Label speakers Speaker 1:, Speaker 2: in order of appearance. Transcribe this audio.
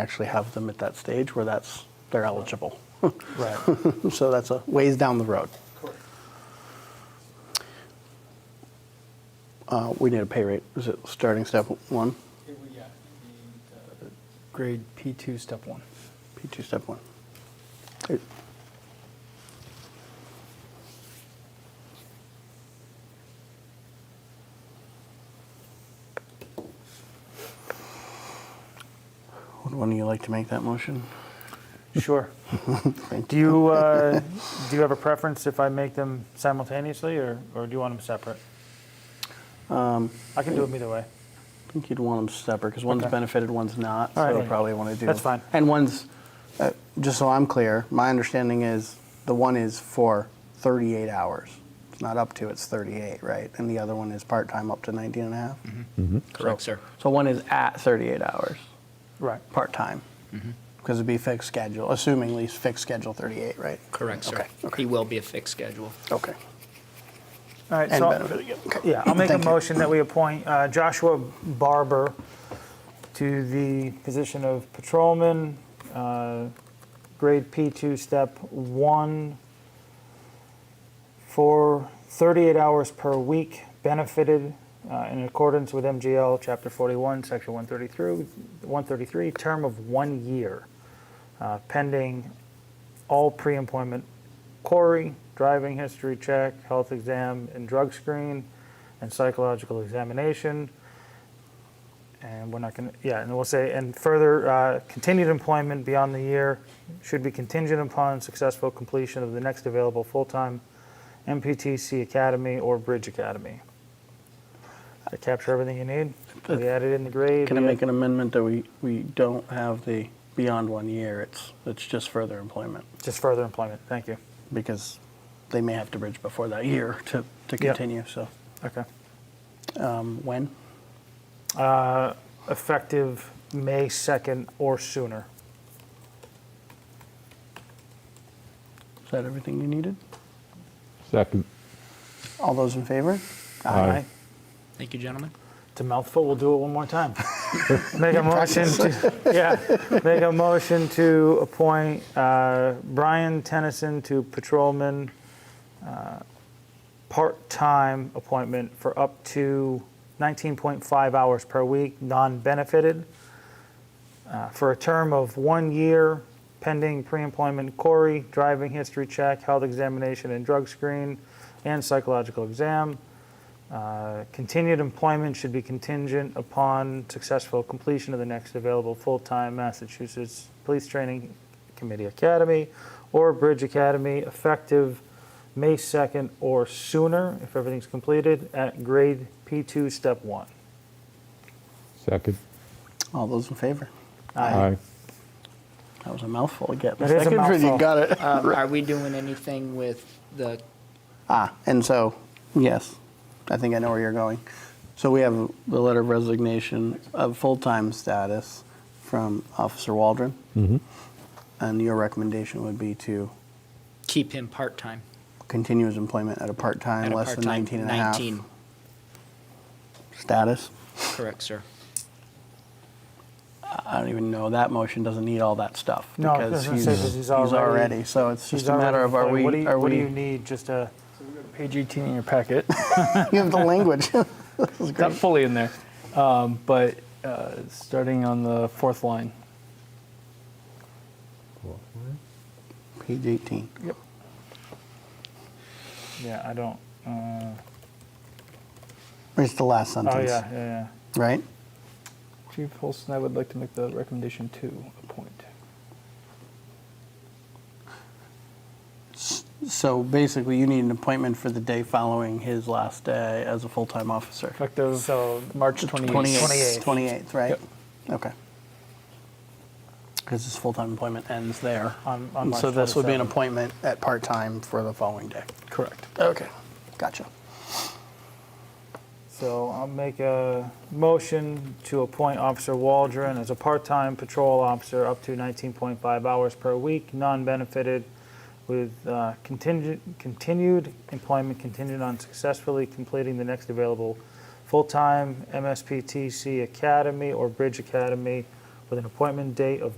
Speaker 1: actually have them at that stage where that's, they're eligible.
Speaker 2: Right.
Speaker 1: So that's a ways down the road. Uh, We need a pay rate. Is it starting step one,
Speaker 2: Grade P2, step one.
Speaker 1: P2 step one? It- Would one of you like to make that motion?
Speaker 3: Sure.
Speaker 1: Thank
Speaker 3: Do you, uh, do you have a preference if I make them simultaneously, or, or do you want them separate? I can do them either way.
Speaker 1: I think you'd want them separate because one's
Speaker 3: Okay.
Speaker 1: benefited, one's not.
Speaker 3: All
Speaker 1: so
Speaker 3: right.
Speaker 1: you probably want to do.
Speaker 3: That's fine.
Speaker 1: And one's, uh, just so I'm clear, my understanding is the one is for 38 hours. It's not up to, it's 38, right? And the other one is part time up to 19 and a half.
Speaker 3: Mm-hmm.
Speaker 4: Correct, sir.
Speaker 1: So one is at 38 hours,
Speaker 3: Right.
Speaker 1: part time,
Speaker 3: Mm-hmm.
Speaker 1: because it'd be fixed schedule, assuming least fixed schedule 38, right?
Speaker 4: Correct, sir.
Speaker 1: Okay. okay.
Speaker 4: He will be a fixed schedule.
Speaker 1: Okay.
Speaker 3: All right,
Speaker 1: And
Speaker 3: so,
Speaker 1: benefit again. Okay.
Speaker 3: yeah, I'll make a
Speaker 1: Thank you.
Speaker 3: motion that we appoint uh, Joshua Barber to the position of patrolman, uh, grade P2, step one, for 38 hours per week, benefited uh, in accordance with MGL Chapter 41, Section 133, 133, term of one year, uh, pending all pre-employment query, driving history check, health exam, and drug screen, and psychological examination. And we're not going to, yeah, and we'll say, and further, uh, continued employment beyond the year should be contingent upon successful completion of the next available full-time MPTC Academy or Bridge Academy. Does that capture everything you need? We added in the grade.
Speaker 1: Uh, Can I
Speaker 3: we
Speaker 1: make
Speaker 3: add-
Speaker 1: an amendment that we, we don't have the beyond one year? It's, it's just further employment.
Speaker 3: Just further employment, thank you.
Speaker 1: because they may have to bridge before that year to, to
Speaker 3: Yeah.
Speaker 1: continue. So
Speaker 3: Okay.
Speaker 1: um, when?
Speaker 3: uh, Effective May 2nd or sooner.
Speaker 1: Is that everything you needed?
Speaker 5: Second.
Speaker 1: All those in favor?
Speaker 5: Aye.
Speaker 4: Thank you, gentlemen.
Speaker 3: It's a mouthful. We'll do it one more time. make a motion to, yeah, make a motion to appoint uh, Brian Tennyson to patrolman, uh, part-time appointment for up to 19.5 hours per week, non-benefited, uh, for a term of one year, pending pre-employment query, driving history check, health examination and drug screen, and psychological exam. Uh, Continued employment should be contingent upon successful completion of the next available full-time Massachusetts Police Training Committee Academy or Bridge Academy effective May 2nd or sooner, if everything's completed, at grade P2, step one.
Speaker 5: Second.
Speaker 1: All those in favor?
Speaker 5: Aye.
Speaker 1: That was a mouthful again.
Speaker 3: That is a
Speaker 1: Second, You
Speaker 3: mouthful. Ah.
Speaker 1: got it.
Speaker 4: Um, Are we doing anything with the,
Speaker 1: Ah, and so, yes, I think I know where you're going. So we have the letter of resignation of full-time status from Officer Waldron.
Speaker 5: Mm-hmm.
Speaker 1: And your recommendation would be to
Speaker 4: keep him part-time?
Speaker 1: continue his employment at a part-time,
Speaker 4: at a
Speaker 1: less than
Speaker 4: part-time-
Speaker 1: 19 and a half
Speaker 4: 19,
Speaker 1: status.
Speaker 4: correct, sir.
Speaker 1: I don't even know, that motion doesn't need all that stuff.
Speaker 3: No, I was
Speaker 1: because
Speaker 3: gonna say, 'cause he's already-
Speaker 1: already, so it's
Speaker 3: He's
Speaker 1: just a matter
Speaker 3: already
Speaker 1: of are
Speaker 3: employed.
Speaker 1: we,
Speaker 3: What do you-
Speaker 1: are
Speaker 3: What do you
Speaker 1: we,
Speaker 3: need, just a,
Speaker 2: Page 18 in your packet.
Speaker 1: you have the language. This is
Speaker 2: Not
Speaker 1: great.
Speaker 2: fully in there, um, but uh, starting on the fourth line.
Speaker 1: Page 18.
Speaker 2: Yep.
Speaker 3: yeah, I don't, uh,
Speaker 1: It's the last
Speaker 3: oh, yeah,
Speaker 1: sentence,
Speaker 3: yeah, yeah.
Speaker 1: right?
Speaker 2: Chief Holston, I would like to make the recommendation to appoint.
Speaker 1: So basically, you need an appointment for the day following his last day as a full-time officer.
Speaker 2: Effective
Speaker 3: So-
Speaker 2: March 28th.
Speaker 1: 28th,
Speaker 3: 28th.
Speaker 1: 28th, right?
Speaker 2: Yep.
Speaker 1: Okay. Because his full-time employment ends there.
Speaker 3: On- on
Speaker 1: And so
Speaker 3: March
Speaker 1: this would be an
Speaker 3: 27th.
Speaker 1: appointment at part-time for the following day.
Speaker 2: Correct.
Speaker 1: Okay, gotcha.
Speaker 3: So I'll make a motion to appoint Officer Waldron as a part-time patrol officer up to 19.5 hours per week, non-benefited, with uh, contingent, continued employment contingent on successfully completing the next available full-time MSPTC Academy or Bridge Academy with an appointment date of